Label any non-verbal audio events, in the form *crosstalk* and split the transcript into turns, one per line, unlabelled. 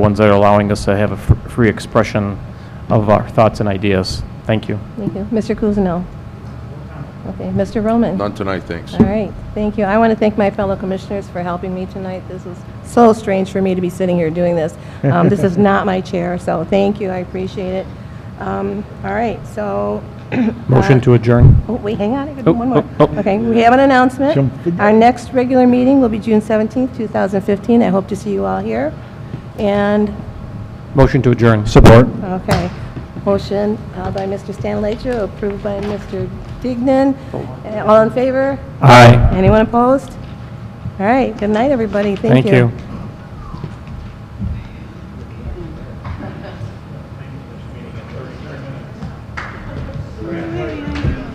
ones that are allowing us to have a fr- free expression of our thoughts and ideas. Thank you.
Thank you. Mr. Kuzno? Okay, Mr. Roman?
None tonight, thanks.
All right, thank you. I want to thank my fellow commissioners for helping me tonight. This was so strange for me to be sitting here doing this. Um, This is not my chair, so thank you, I appreciate it. Um, All right, so... *clears throat* uh,
Motion to adjourn.
Oh, wait, hang on, I
Oh,
got one more.
oh, oh.
Okay, we have an announcement.
Jump.
Our next regular meeting will be June 17th, 2015. I hope to see you all here. And
Motion to adjourn. Support.
Okay. Motion uh, by Mr. Stanalejo, approved by Mr. Dignan. Uh, All in favor?
Aye.
Anyone opposed? All right, good night, everybody. Thank you.
Thank you.